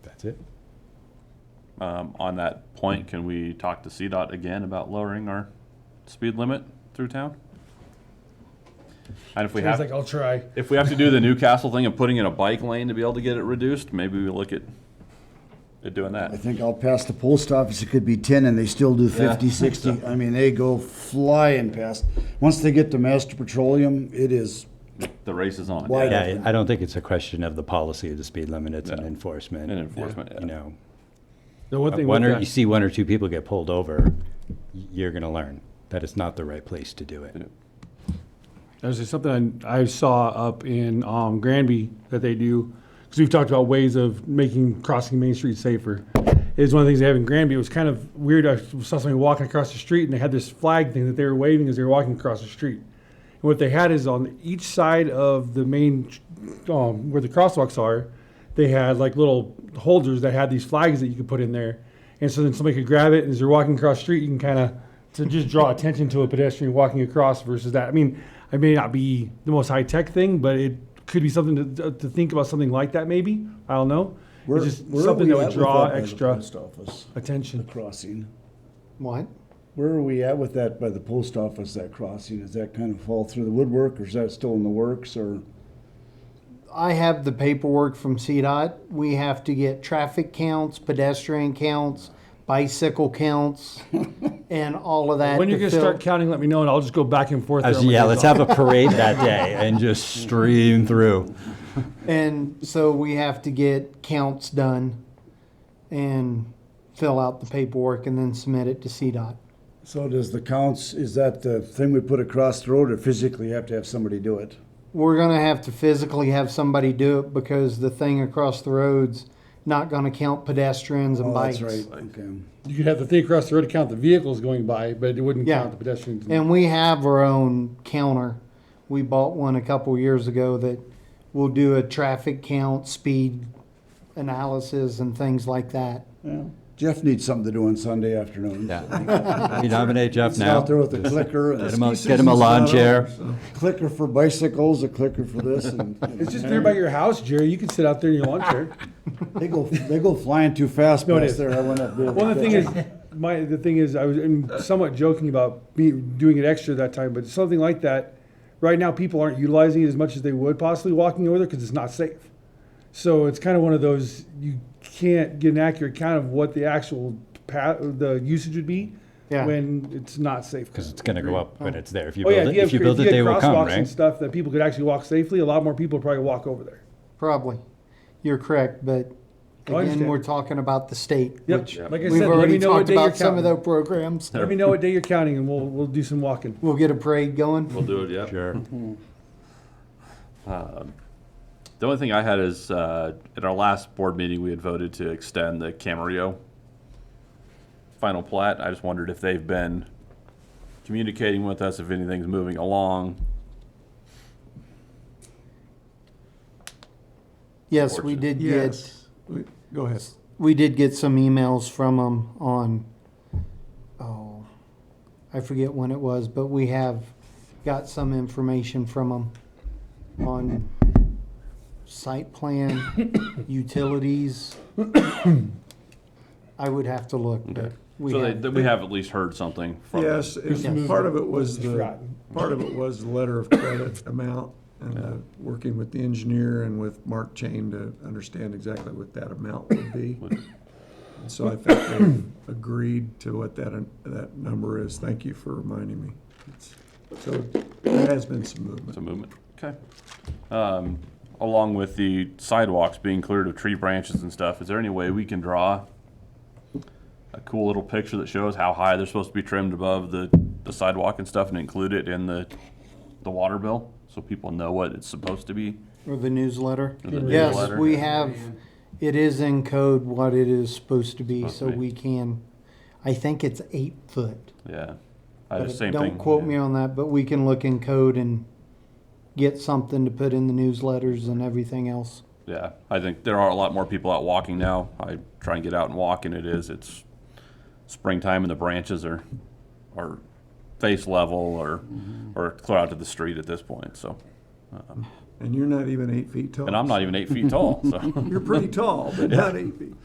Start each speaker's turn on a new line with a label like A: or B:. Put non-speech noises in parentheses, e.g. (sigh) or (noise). A: That's it.
B: Um, on that point, can we talk to CDOT again about lowering our speed limit through town? And if we
A: He's like,
B: have,
A: I'll try.
B: if we have to do the Newcastle thing of putting in a bike lane to be able to get it reduced, maybe we look at, at doing
C: I
B: that.
C: think out past the post office, it could be ten and they still do fifty,
B: Yeah.
C: sixty. I mean, they go flying past. Once they get to Master Petroleum, it is
B: The race is on.
C: wide
D: Yeah,
C: open.
D: I I don't think it's a question of the policy of the speed limit, it's an
B: No.
D: enforcement.
B: And enforcement, yeah.
D: You know,
A: The one thing
D: one
A: with
D: or, you
A: that,
D: see one or two people get pulled over, y- you're gonna learn that it's not the right place to do it.
A: there's just something I I saw up in um, Granby that they do, because we've talked about ways of making crossing Main Street safer. Is one of the things they have in Granby. It was kind of weird. I saw somebody walking across the street and they had this flag thing that they were waving as they were walking across the street. And what they had is on each side of the main, um, where the crosswalks are, they had like little holders that had these flags that you could put in there. And so then somebody could grab it and as you're walking across the street, you can kind of, to just draw attention to a pedestrian walking across versus that. I mean, it may not be the most high tech thing, but it could be something to, to think about something like that maybe. I don't know.
C: Where-
A: it's just
C: where are
A: something
C: we at
A: that would
C: with
A: draw
C: that by the
A: extra
C: Post office, the
A: attention.
C: crossing.
E: What?
C: Where are we at with that by the post office, that crossing? Does that kind of fall through the woodwork or is that still in the works or?
E: I have the paperwork from CDOT. We have to get traffic counts, pedestrian counts,
C: (laughs)
E: bicycle counts, and all of that.
A: When you're
E: to
A: going to start
E: fill-
A: counting, let me know and I'll just go back and forth.
D: I
A: there
D: was-
A: on my
D: yeah,
A: days
D: let's
A: off.
D: have a parade that
A: (laughs)
D: day and just stream through.
E: And so we have to get counts done and fill out the paperwork and then submit it to CDOT.
C: So does the counts, is that the thing we put across the road or physically have to have somebody do it?
E: We're gonna have to physically have somebody do it because the thing across the road's not gonna count pedestrians and
C: Oh,
E: bikes.
C: that's right, okay.
A: You could have the thing across the road to count the vehicles going by, but it wouldn't
E: Yeah.
A: count the pedestrians.
E: And we have our own counter. We bought one a couple years ago that will do a traffic count, speed analysis, and things like that.
C: Jeff needs something to do on Sunday afternoon.
D: We nominate Jeff
C: He's
D: now.
C: out there with a clicker. and
D: Get
C: the
D: him a-
C: ski
D: get him a
C: season's
D: lawn
C: not
D: chair.
C: over. Clicker for bicycles, a clicker for this, and you
A: (laughs) It's just there by your house, Jerry. You can sit out there in your lawn chair.
C: know, they go, they go flying too fast
A: No, it
C: past
A: is.
C: there. I went up there.
A: Well, the
E: (laughs)
A: thing is, my the thing is, I was I'm somewhat joking about me doing it extra that time, but something like that. Right now, people aren't utilizing it as much as they would possibly walking over there because it's not safe. So it's kind of one of those you can't get an accurate count of what the actual pa- the usage would be
E: Yeah.
A: when it's not safe.
D: Because it's gonna go up when it's there. If you
A: Oh yeah,
D: build
A: if
D: it,
A: you, have,
D: if you build it, they
A: had
D: will come,
A: crosswalks and
D: right?
A: stuff that people could actually walk safely, a lot more people would probably walk over there.
E: Probably. You're correct, but
A: Oh, I
E: again,
A: understand.
E: we're talking about the state,
A: Yep.
E: which
A: Like I
E: we've
A: said, let me
E: already
A: know what
E: talked
A: day you're
E: about some of
A: counting.
E: those programs.
A: Let me know what day you're counting, and we'll we'll do some walking.
E: We'll get a parade going.
B: We'll do it, yeah.
D: Sure.
B: The only thing I had is, uh, at our last board meeting, we had voted to extend the Camarillo final plat. I just wondered if they've been communicating with us, if anything's moving along.
E: Yes, we did get,
F: Yes. We- Go ahead.
E: we did get some emails from them on, oh, I forget when it was, but we have got some information from them on site plan, utilities. I would have to look, but we
B: So they,
E: have,
B: th- we have at least heard something from them.
F: Yes, it-
E: Yes.
F: part of it was the,
A: forgotten.
F: part of it was the letter of credit (coughs) amount and uh, working with the engineer and with Mark Chain to understand exactly what that amount would (coughs) be. And So I think they (coughs) agreed to what that, that number is. Thank you for reminding me. It's- So there has been some movement.
B: Some movement, okay. Um, along with the sidewalks being cleared of tree branches and stuff, is there any way we can draw a cool little picture that shows how high they're supposed to be trimmed above the, the sidewalk and stuff and include it in the, the water bill? So people know what it's supposed to be?
E: or the newsletter.
B: or the
E: Yes,
B: newsletter?
E: we have, it is in code what it is supposed to be,
B: Supposed
E: so
B: to be.
E: we can, I think it's eight foot.
B: Yeah. I
E: But
B: just, Uh, same
E: Don't
B: thing.
E: quote me on that, but we can look in code and get something to put in the newsletters and everything else.
B: Yeah, I think there are a lot more people out walking now. I try and get out and walk, and it is it's springtime, and the branches are are face level or or clear out to the street at this point. So,
F: And you're not even eight feet tall.
B: and I'm not even eight feet tall. So. (laughs)
F: (laughs) You're pretty tall, but not eight feet.